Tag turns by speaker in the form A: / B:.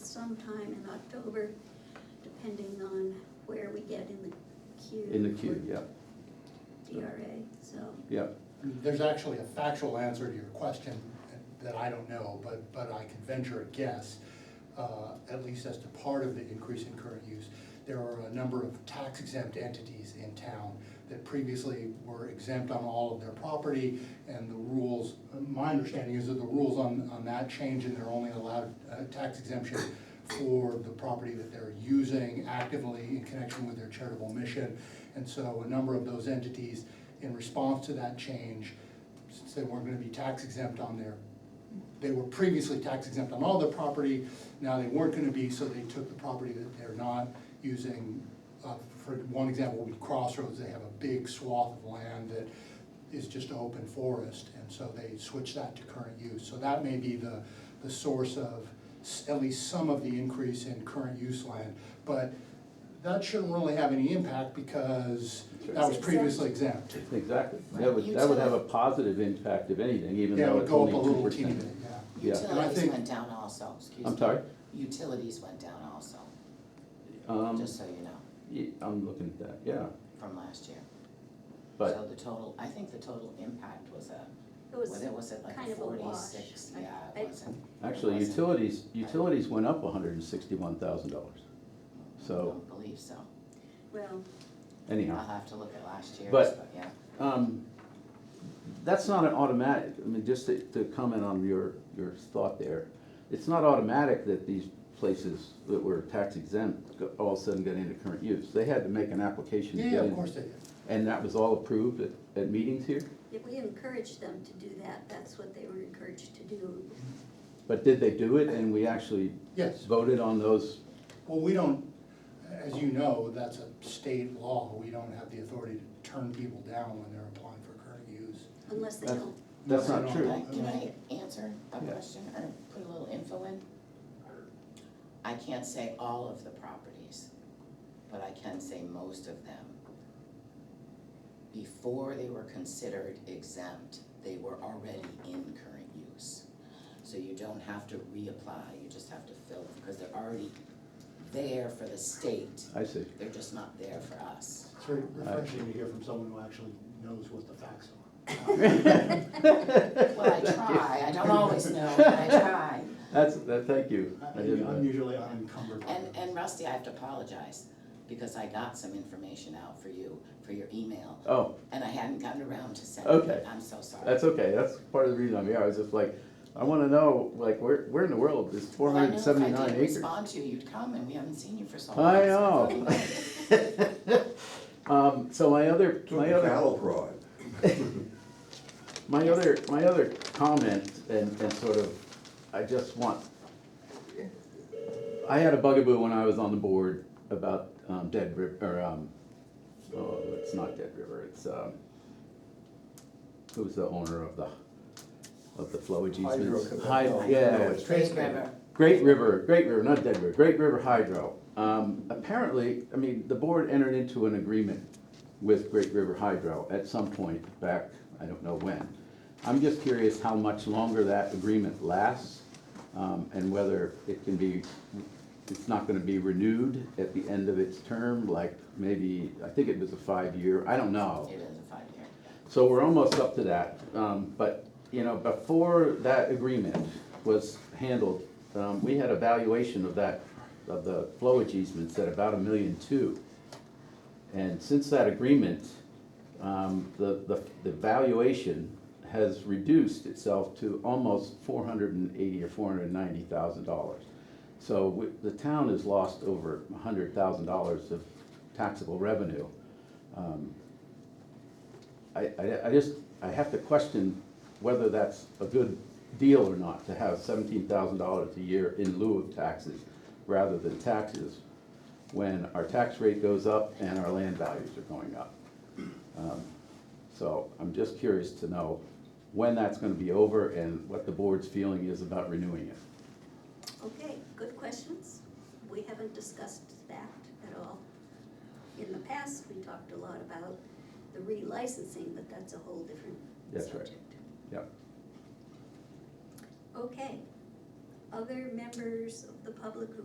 A: sometime in October, depending on where we get in the queue.
B: in the queue,
A: for
B: yeah,
A: DRA, so,
B: yeah.
C: There's actually a factual answer to your question that I don't know, but, but I can venture a guess, uh, at least as to part of the increase in current use. There are a number of tax exempt entities in town that previously were exempt on all of their property, and the rules, my understanding is that the rules on, on that change, and they're only allowed uh, tax exemption for the property that they're using actively in connection with their charitable mission. And so a number of those entities in response to that change, since they weren't gonna be tax exempt on their, they were previously tax exempt on all their property, now they weren't gonna be, so they took the property that they're not using. Uh, For one example would be Crossroads, they have a big swath of land that is just open forest, and so they switched that to current use. So that may be the, the source of s- at least some of the increase in current use land. But that shouldn't really have any impact because that was
D: It's exempt.
C: previously exempt.
B: Exactly, that would, that would have a positive impact if anything, even
C: Yeah, it
B: though
C: would
B: it's
C: go
B: only
C: up a little
B: two
C: teeny bit,
B: percent.
C: yeah.
B: Yeah.
C: And I
D: Utilities
C: think-
D: went down also, excuse me.
B: I'm sorry?
D: Utilities went down also,
B: Um,
D: just so you know,
B: ye- I'm looking at that, yeah,
D: from last year. So
B: but,
D: the total, I think the total impact was a,
A: it
D: was
A: was,
D: it, was it like
A: kind
D: a
A: of a wash.
D: forty-six?
A: I-
D: Yeah,
A: I-
D: it wasn't. it
B: actually,
D: wasn't.
B: utilities, utilities went up hundred and sixty-one thousand dollars,
D: I
B: so
D: don't believe so.
A: well,
B: anyhow.
D: I'll have to look at last year's,
B: But-
D: but yeah.
C: Uh-huh.
B: Um, That's not an automatic, I mean, just to, to comment on your, your thought there, it's not automatic that these places that were tax exempt go- all of a sudden got into current use. They had to make an application to
C: Yeah,
B: get
C: of
B: in,
C: course they did.
B: and that was all approved at, at meetings here?
A: if we encouraged them to do that, that's what they were encouraged to do.
B: But did they do it, and we actually
C: Yes,
B: voted on those?
C: well, we don't, as you know, that's a state law. We don't have the authority to turn people down when they're applying for current use.
A: Unless they
B: That's-
A: don't,
B: That's
C: No,
B: not
C: I
B: true.
C: don't.
D: Can I, can
C: Okay.
D: I answer a
B: Yeah.
D: question or put a little info in? I can't say all of the properties, but I can say most of them. Before they were considered exempt, they were already in current use. So you don't have to reapply, you just have to fill them, because they're already there for the state,
B: I see.
D: they're just not there for us.
E: It's very refreshing to hear from someone who actually knows what the facts are.
D: Well, I try, I don't always know, but I try.
B: That's, that, thank you.
E: I-
B: I didn't
E: I'm
B: know.
E: usually unencumbered. by
D: And,
E: them.
D: and Rusty, I have to apologize, because I got some information out for you, for your email,
B: Oh,
D: and I hadn't gotten around to sending it.
B: Okay.
D: I'm so sorry.
B: that's okay, that's part of the reason I'm here, I was just like, I wanna know, like, where, where in the world is four hundred and
D: Well, I
B: seventy-nine
D: know if I didn't
B: acres?
D: respond to you, you'd come, and we haven't seen you for so long.
B: I
D: so thought
B: know.
D: you might.
B: Um, so my other,
F: Took
B: my
F: the
B: other,
F: cattle prod.
B: my other, my other comment and, and sort of, I just want, I had a bugaboo when I was on the board about, um, Dead River, or, um, oh, it's not Dead River, it's, um, who's the owner of the, of the flowage easements?
F: Hydro-
B: Hyd-
F: no, no,
B: yeah,
F: it's-
B: Great
D: Great River,
B: River, Great River, not Dead River, Great River Hydro. Um, apparently, I mean, the board entered into an agreement with Great River Hydro at some point back, I don't know when. I'm just curious how much longer that agreement lasts, um, and whether it can be, it's not gonna be renewed at the end of its term, like maybe, I think it was a five-year, I don't know.
D: it is a five-year.
B: So we're almost up to that, um, but, you know, before that agreement was handled, um, we had a valuation of that, of the flowage easements at about a million two. And since that agreement, um, the, the, the valuation has reduced itself to almost four hundred and eighty or four hundred and ninety thousand dollars. So we- the town has lost over a hundred thousand dollars of taxable revenue. Um, I, I, I just, I have to question whether that's a good deal or not, to have seventeen thousand dollars a year in lieu of taxes rather than taxes, when our tax rate goes up and our land values are going up. Um, So I'm just curious to know when that's gonna be over and what the board's feeling is about renewing it.
A: okay, good questions. We haven't discussed that at all. In the past, we talked a lot about the relicensing, but that's a whole different
B: That's right.
A: subject.
B: Yep.
A: Okay. Other members of the public who